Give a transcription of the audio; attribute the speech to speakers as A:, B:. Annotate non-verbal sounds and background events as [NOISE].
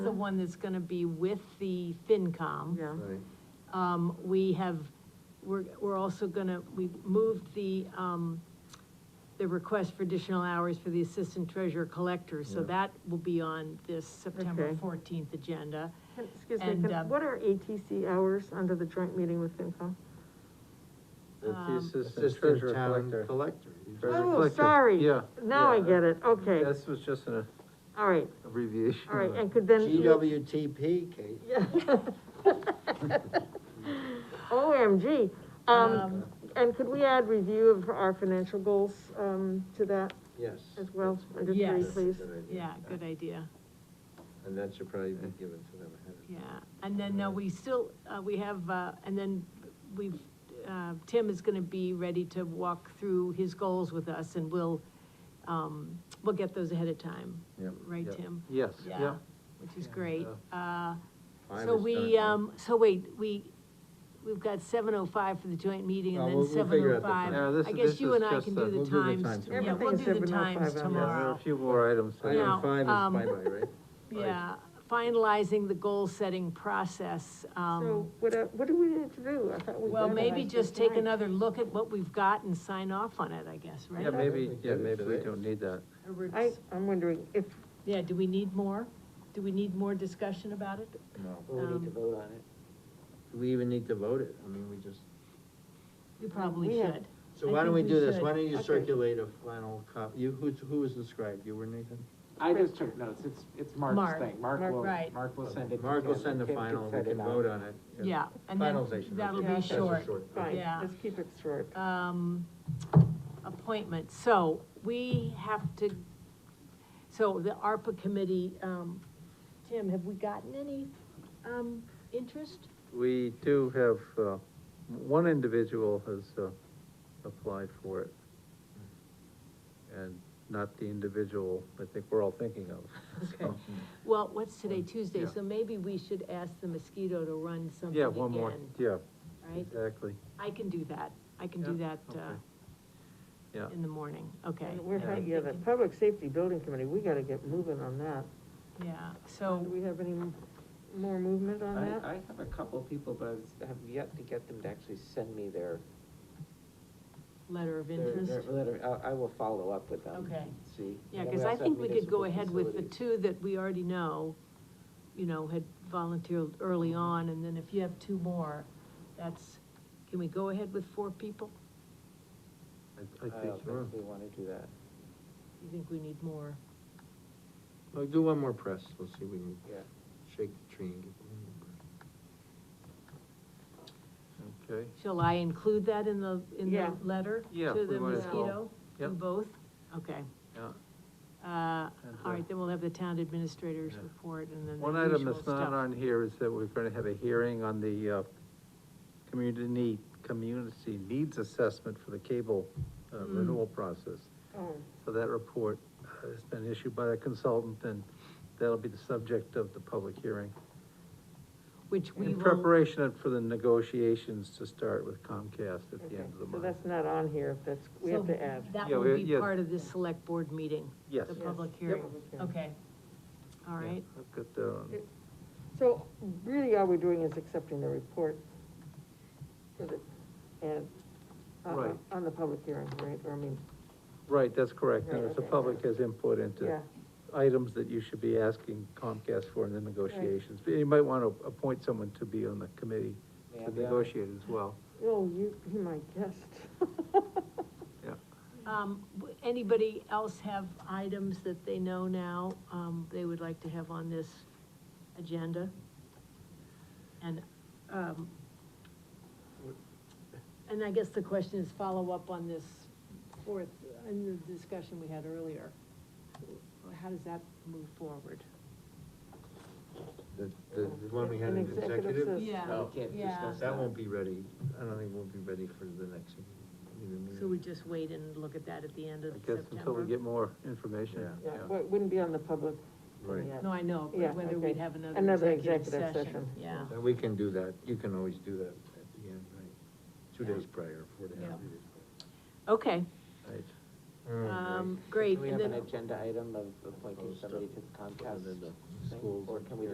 A: the one that's gonna be with the FinCom.
B: Yeah.
C: Right,
A: Um, we have, we're, we're also gonna, we moved the, um, the request for additional hours for the assistant treasurer collector, so
C: Yeah.
A: that will be on this September
B: Okay.
A: fourteenth agenda.
B: Can- Excuse me,
A: And,
B: can-
A: um,
B: what are ATC hours under the joint meeting with
A: Um,
B: FinCom?
C: that's the assistant
D: Assistant
C: treasurer
D: town
C: collector.
D: collector.
C: Treasurer
B: Oh,
C: collector.
B: sorry.
C: Yeah.
B: Now I
C: yeah.
B: get it, okay,
C: This was just an
B: all right,
C: abbreviation.
B: all right, and could then.
D: GWTP, Kate.
B: Yeah. [LAUGHS] OMG, um, and could we add review of our financial goals, um, to that
D: Yes.
B: as well, under three,
A: Yes.
B: please?
A: Yeah, good idea,
D: And that should probably be given to them ahead of
A: yeah, and then, uh, we still, uh, we have, uh, and then we've, uh, Tim is gonna be ready to walk through his goals with us, and we'll, um, we'll get those ahead of time.
C: Yep.
A: Right,
C: Yep.
A: Tim?
C: Yes, yeah.
A: Which is great, uh,
D: Five
A: So
D: is
A: we,
D: done.
A: um, so wait, we, we've got seven oh five for the joint meeting and
D: Well,
A: then
D: we'll- we'll
A: seven
D: figure
A: oh
D: out the
A: five.
D: time.
C: Yeah, this-
A: I
C: this
A: guess you and I
C: is just
A: can
C: a-
A: do
D: we'll
A: the
D: do the
A: times,
D: times
A: t- yeah, we'll
B: Everything is
A: do the
B: 7:05
A: times
B: on that.
C: Yeah, there are a
A: tomorrow.
C: few more items. to
A: now,
D: Item five
A: um,
D: is bye-bye, right?
A: Yeah, finalizing the goal-setting process, um,
B: So, what, uh, what do we need to do? I thought we
A: well,
B: did
A: maybe
B: that
A: just take
B: tonight.
A: another look at what we've got and sign off on it, I guess, right?
C: Yeah, maybe,
D: think
C: yeah,
D: that is
C: maybe we
D: today.
C: don't need that.
A: Or we're-
B: I, I'm wondering if,
A: Yeah, do we need more? Do we need more discussion about it?
E: Well, we need
A: Um,
E: to vote on it.
D: Do we even need to vote it? I mean, we just,
A: We probably
B: We have-
A: should.
D: so
A: I
D: why don't we
A: think we
D: do this?
A: should.
D: Why don't you
B: Okay.
D: circulate a final copy? You, who, who was inscribed? You were Nathan?
F: I just took notes, it's, it's Mark's
A: Mark.
F: thing, Mark
B: Mark,
F: will,
A: right.
F: Mark will send it. to
D: Mark will
F: Kim.
D: send the
E: Kim can
D: final, we
E: send it
D: can
E: out.
D: vote on it.
A: Yeah, and then
D: Finalization,
A: that'll
D: okay.
B: be
D: That's a
A: short.
D: okay.
B: fine,
A: Yeah.
B: let's keep it short.
A: um, appointment, so we have to, so the ARPA committee, um, Tim, have we gotten any, um, interest?
C: We do have, uh, one individual has, uh, applied for it. And not the individual I think we're all thinking of.
A: Okay. Well, what's today,
C: Oh,
A: Tuesday, so maybe we should ask the mosquito to run something
C: Yeah, one more,
A: again,
C: yeah,
A: Right,
C: exactly,
A: I can do that, I can do that, uh,
C: yeah.
A: in the morning, okay.
B: And We're, hang- yeah, the Public Safety Building Committee, we gotta get moving on that.
A: Yeah,
B: Do
A: so,
B: we have any m- more movement on
E: I,
B: that?
E: I have a couple of people, but I was- have yet to get them to actually send me their.
A: letter of
E: their-
A: interest.
E: their letter. I, I will follow up with them.
A: Okay.
E: See.
A: Yeah,
E: And
A: because
E: we
A: I
E: also
A: think
E: have
A: we could go
E: municipal
A: ahead with the
E: facilities.
A: two that we already know, you know, had volunteered early
E: Mm-hmm.
A: on, and then if you have two more, that's, can we go ahead with four people?
C: I-
E: I
C: I
E: don't
C: think so.
E: think we wanna do that.
A: You think we need more?
D: Well, do one more press, we'll see if we can
E: Yeah.
D: shake the tree and get one more press.
C: Okay,
A: Shall I include that in the, in the
B: Yeah.
A: letter?
C: Yeah,
A: To
C: we
A: the
C: might
B: as well.
A: mosquito?
C: Yep.
A: In both? Okay.
C: yeah.
A: Uh,
C: And,
A: all
C: uh,
A: right, then we'll have the town administrator's
C: Yeah.
A: report, and then
C: One
A: the
C: item
A: usual
C: that's not
A: stuff.
C: on here is that we're gonna have a hearing on the, uh, community need, community needs assessment for the cable uh,
A: Mm.
C: renewal process.
B: Oh,
C: So that report uh, has been issued by the consultant, and that'll be the subject of the public hearing.
A: Which we
C: In
A: will,
C: preparation for the negotiations to start with Comcast at the
B: okay,
C: end of the
B: so
C: month.
B: that's not on here, that's, we have
A: So
B: to add.
A: that
C: Yeah,
A: will
C: we-
A: be
C: yeah.
A: part of the select board meeting,
C: Yes.
A: the
B: Yes.
A: public
B: Yep.
A: hearing.
B: Public
A: Okay. All
C: Yeah,
A: right.
C: I've got that on.
B: So really, all we're doing is accepting the report for the, and, uh,
C: Right.
B: on the public hearing, right, or I mean,
C: Right, that's correct,
B: Right,
C: If the
B: okay.
C: public has input into
B: yeah,
C: items that you should be asking Comcast for in the negotiations. But You might want to appoint someone to be on the committee
E: May I
C: to
E: be on it?
C: negotiate as well.
B: oh, you, be my guest. [LAUGHS]
A: Um, w- anybody else have items that they know now, um, they would like to have on this agenda? And, um, and I guess the question is follow up on this fourth, in the discussion we had earlier. How does that move forward?
D: The, the, the one we had
B: An
D: in
B: executive
D: executive? Oh,
B: session.
A: Yeah.
D: No,
E: We can't
A: Yeah.
E: discuss
D: That won't be ready, I don't think we'll be ready for the next meeting.
A: So we just wait and look at that at the end
C: Hmm. I
A: of
C: guess until we
A: September?
C: get more information.
D: Yeah.
B: Yeah, well, it wouldn't be on the public.
D: Right.
B: yet.
A: No, I know,
B: Yeah,
A: but whether
B: okay.
A: we'd have another
B: Another
A: executive
B: executive
A: session,
B: session.
A: yeah.
D: And we can do that, you can always do that at the end, right? Two
A: Yeah.
D: days prior, four days.
A: Yeah.
D: three days
A: Okay,
C: Right.
D: prior.
A: um, great,
E: Can we
A: and
E: have an
A: then
E: agenda item of appointing somebody to the
D: And then
E: Comcast
D: the
E: thing?
D: schools.
E: Or can we